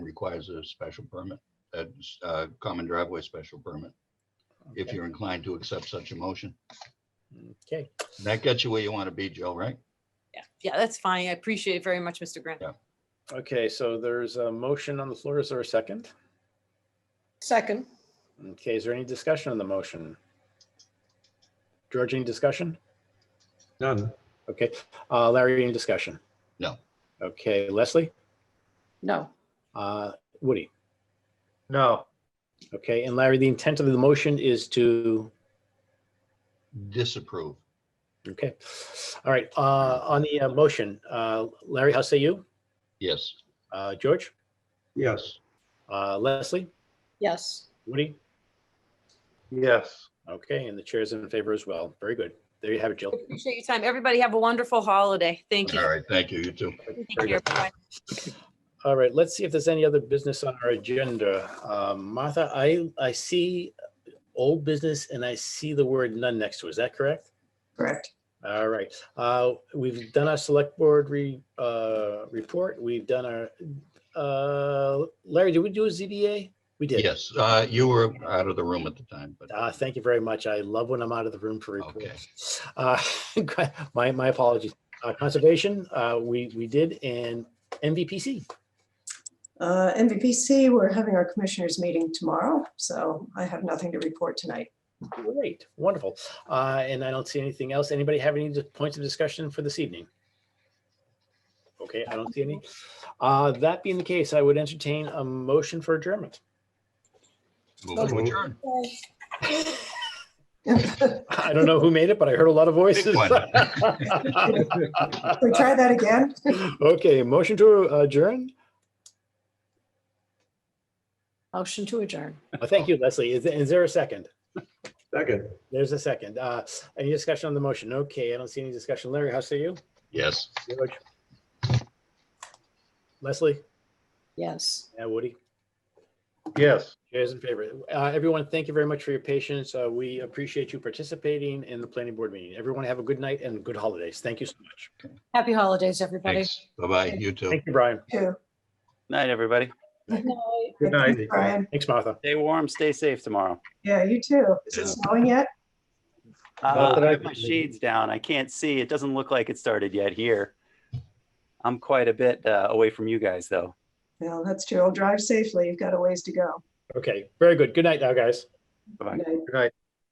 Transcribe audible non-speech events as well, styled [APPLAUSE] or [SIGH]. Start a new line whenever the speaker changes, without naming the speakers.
requires a special permit, a uh, common driveway special permit, if
Okay.
you're inclined to accept such a motion.
Okay,
That gets you where you want to be, Joe, right?
Yeah, yeah, that's fine. I appreciate it very much, Mr. Grant.
Yeah.
okay, so there's a motion on the floor. Is there a second?
Second,
Okay, is there any discussion on the motion? George, any discussion?
None.
Okay, uh, Larry, any discussion?
No.
Okay, Leslie,
no,
uh, Woody,
No.
okay, and Larry, the intent of the motion is to,
Disapprove.
okay. All right, uh, on the uh, motion, uh, Larry, how say you?
Yes.
Uh, George,
Yes.
uh, Leslie,
yes,
Woody?
Yes.
Okay, and the chair is in favor as well. Very good. There you have it, Jill.
Appreciate your time. Everybody have a wonderful holiday. Thank you.
All right, thank you, you too.
Thank you. everyone.
All right, let's see if there's any other business on our agenda. Um, Martha, I, I see old business and I see the word none next to it. Is that correct?
correct.
All right, uh, we've done our select board re, uh, report. We've done our, uh, Larry, did we do a ZBA? We did.
Yes, uh, you were out of the room at the time, but
Uh, thank you very much. I love when I'm out of the room for
okay.
reports. Uh, [LAUGHS] my, my apologies. Uh, conservation, uh, we, we did and MVPC.
Uh, MVPC, we're having our commissioners meeting tomorrow, so I have nothing to report tonight. [LAUGHS]
Great, wonderful. Uh, and I don't see anything else. Anybody have any di- points of discussion for this evening? Okay, I don't see any. Uh, that being the case, I would entertain a motion for adjournment. [LAUGHS]
Move to adjourn.
Can
I don't know who made it, but I heard a lot of voices.
one.
we try that again?
[LAUGHS] Okay, motion to adjourn.
Motion to adjourn.
Uh, Thank you, Leslie. Is, is there a second?
Second.
There's a second. Uh, any discussion on the motion? Okay, I don't see any discussion. Larry, how say you?
Yes.
George? Leslie?
Yes.
Yeah, Woody?
Yes.
Chairs in favor. Uh, Everyone, thank you very much for your patience. Uh, We appreciate you participating in the planning board meeting. Everyone have a good night and good holidays. Thank you so much.
Happy holidays, everybody.
Thanks. Bye-bye, you too.
Thank you, Brian.
Two.
Night, everybody.
Good night.
Brian,
Thanks, Martha.
Stay warm, stay safe tomorrow.
yeah, you too. Is it snowing yet?
Uh,
that I
I have my
can see.
shades down. I can't see. It doesn't look like it started yet here. I'm quite a bit uh, away from you guys, though.
Well, that's true. Drive safely. You've got a ways to go.
Okay, very good. Good night now, guys.
Bye-bye.
Good night.
Good night.